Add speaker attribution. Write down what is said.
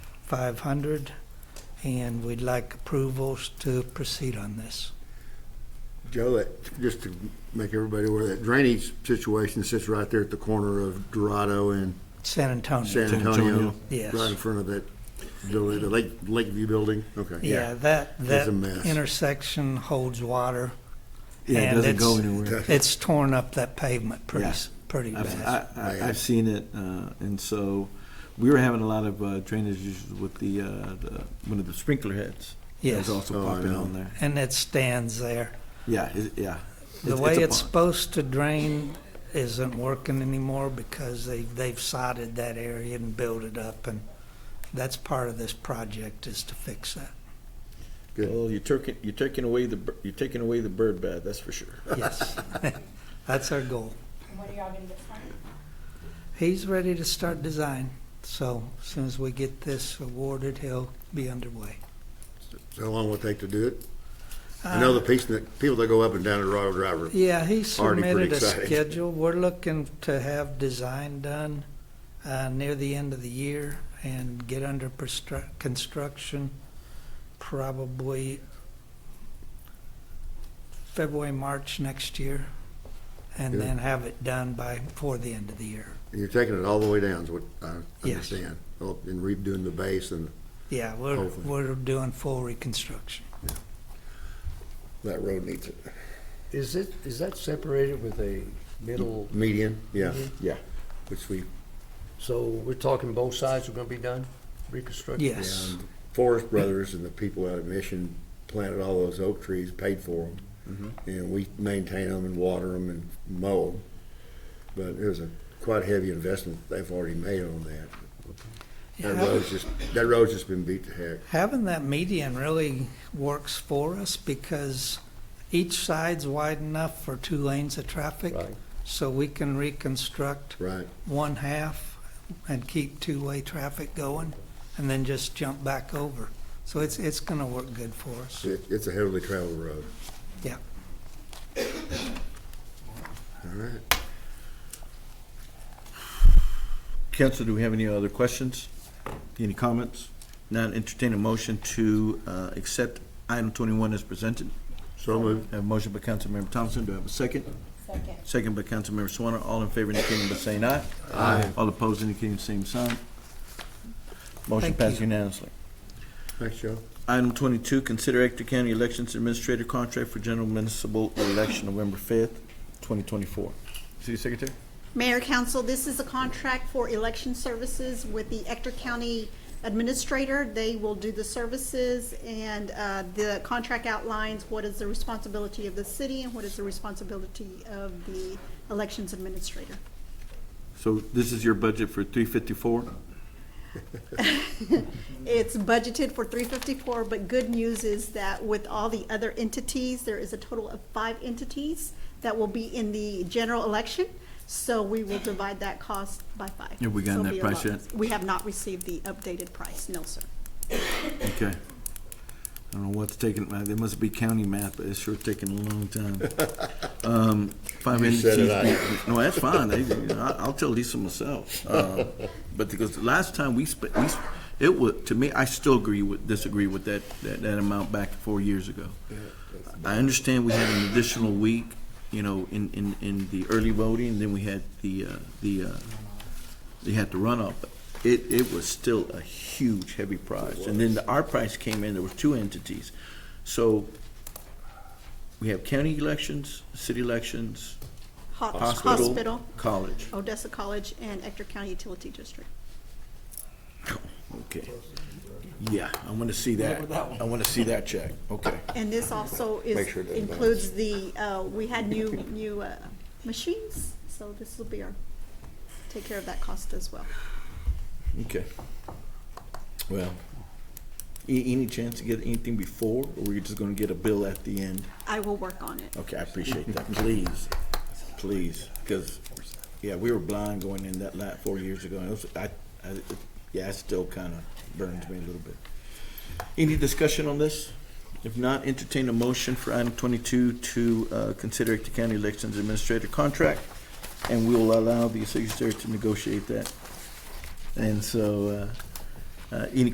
Speaker 1: 500, and we'd like approvals to proceed on this.
Speaker 2: Joe, that, just to make everybody aware, that drainage situation sits right there at the corner of Dorado and
Speaker 1: San
Speaker 2: San
Speaker 1: Antonio.
Speaker 2: Antonio.
Speaker 1: Yes.
Speaker 2: Right in front of that building, the Lake, Lakeview Building, okay.
Speaker 1: Yeah, that,
Speaker 2: It's
Speaker 1: that
Speaker 2: a mess.
Speaker 1: intersection holds water.
Speaker 3: Yeah, it
Speaker 1: and
Speaker 3: doesn't go
Speaker 1: it's-
Speaker 3: anywhere.
Speaker 1: It's torn up that pavement pretty, s- pretty
Speaker 3: I've,
Speaker 1: bad.
Speaker 3: I, I, I've seen it, uh, and so we were having a lot of uh, drainage issues with the, uh, the one of the sprinkler heads. that
Speaker 1: Yes,
Speaker 3: was also
Speaker 2: Oh, I
Speaker 3: popping
Speaker 2: know.
Speaker 3: on there.
Speaker 1: and it stands there.
Speaker 3: Yeah, it, yeah.
Speaker 1: The
Speaker 3: a
Speaker 1: way it's
Speaker 3: pond.
Speaker 1: supposed to drain isn't working anymore because they, they've sodded that area and built it up, and that's part of this project is to fix that.
Speaker 2: Good.
Speaker 4: Well, you're taking, you're taking away the, bir- you're taking away the bird bath, that's for sure.
Speaker 1: Yes, that's our goal.
Speaker 5: What are y'all gonna get started?
Speaker 1: He's ready to start design, so as soon as we get this awarded, he'll be underway.
Speaker 2: So How long will it take to do it? I know the piece, that people that go up and down Dorado Drive are
Speaker 1: Uh, Yeah, he
Speaker 2: Already pretty
Speaker 1: submitted a
Speaker 2: exciting.
Speaker 1: schedule. We're looking to have design done uh, near the end of the year and get under perstru- construction probably February, March next year, and
Speaker 2: Good.
Speaker 1: then have it done by, before the end of the year.
Speaker 2: And you're taking it all the way down, is what I
Speaker 1: Yes.
Speaker 2: understand. Oh, And redoing the base and
Speaker 1: Yeah, we're,
Speaker 2: Hopefully.
Speaker 1: we're doing full reconstruction.
Speaker 2: that road needs it.
Speaker 6: Is it, is that separated with a middle,
Speaker 2: Median, yeah,
Speaker 1: Mm-hmm.
Speaker 4: Yeah.
Speaker 2: which we,
Speaker 6: so we're talking both sides are gonna be done, reconstructed?
Speaker 1: Yes,
Speaker 2: and Forest Brothers and the people out of Mission planted all those oak trees, paid for them. And we maintain them and water them and mow them. But it was a quite heavy investment they've already made on that. That
Speaker 1: Yeah.
Speaker 2: road's just, that road's just been beat to heck.
Speaker 1: having that median really works for us because each side's wide enough for two lanes of traffic.
Speaker 6: Right.
Speaker 1: So we can reconstruct
Speaker 2: Right,
Speaker 1: one half and keep two-way traffic going and then just jump back over. So it's, it's gonna work good for us.
Speaker 2: It- it's a heavily traveled road.
Speaker 1: Yeah.
Speaker 2: All right.
Speaker 3: Council, do we have any other questions? Any comments? Not entertain a motion to uh, accept item twenty-one as presented.
Speaker 2: So moved.
Speaker 3: Have a motion by Councilmember Thompson. Do I have a second?
Speaker 5: Second.
Speaker 3: Second by Councilmember Swanner. All in favor indicating by saying aye. Aye. All opposed indicating the same sign. Motion
Speaker 1: Thank
Speaker 3: passed
Speaker 1: you.
Speaker 3: unanimously.
Speaker 2: Thanks, Joe.
Speaker 3: Item twenty-two, consider Ector County Elections Administrator Contract for General Municipal Election November fifth, twenty twenty-four. City Secretary?
Speaker 7: Mayor, council, this is a contract for election services with the Ector County Administrator. They will do the services, and uh, the contract outlines what is the responsibility of the city and what is the responsibility of the Elections Administrator.
Speaker 3: So this is your budget for three fifty-four?
Speaker 7: It's budgeted for three fifty-four, but good news is that with all the other entities, there is a total of five entities that will be in the general election, so we will divide that cost by five.
Speaker 3: Have we gotten
Speaker 7: So it'll
Speaker 3: that
Speaker 7: be a
Speaker 3: price
Speaker 7: lot.
Speaker 3: yet?
Speaker 7: We have not received the updated price, no, sir.
Speaker 3: Okay. I don't know what's taking, uh, there must be county math, but it's sure taking a long time. Um, Five
Speaker 2: You said
Speaker 3: entities.
Speaker 2: it,
Speaker 3: No, that's fine. They- you know, I- I'll tell Lisa myself. Uh, But because the last time we spent, we, sp- it was, to me, I still agree with, disagree with that, that, that amount back four years ago. I understand we had an additional week, you know, in, in, in the early voting, then we had the, uh, the, uh, they had to run off. but It, it was still a huge, heavy price. And then the- our price came in, there were two entities. So we have county elections, city elections,
Speaker 7: Ho-
Speaker 3: hospital,
Speaker 7: Hospital,
Speaker 3: college.
Speaker 7: Odessa College, and Ector County Utility District.
Speaker 3: Oh, Okay. Yeah, I want to see that. I want to see that check. Okay.
Speaker 7: And this also
Speaker 2: Make
Speaker 7: is,
Speaker 2: sure it doesn't
Speaker 7: includes the, uh, we had new, new uh, machines, so this will be our, take care of that cost as well.
Speaker 3: Okay. Well, a- any chance to get anything before, or we're just going to get a bill at the end?
Speaker 7: I will work on it.
Speaker 3: Okay, I appreciate that, please, please, because, yeah, we were blind going in that lot four years ago, and it was, I, I, yeah, it still kind of burns me a little bit. Any discussion on this? If not, entertain a motion for item twenty-two to, uh, consider Ector County Elections Administrator contract, and we will allow the secretary to negotiate that. And so, uh, uh, any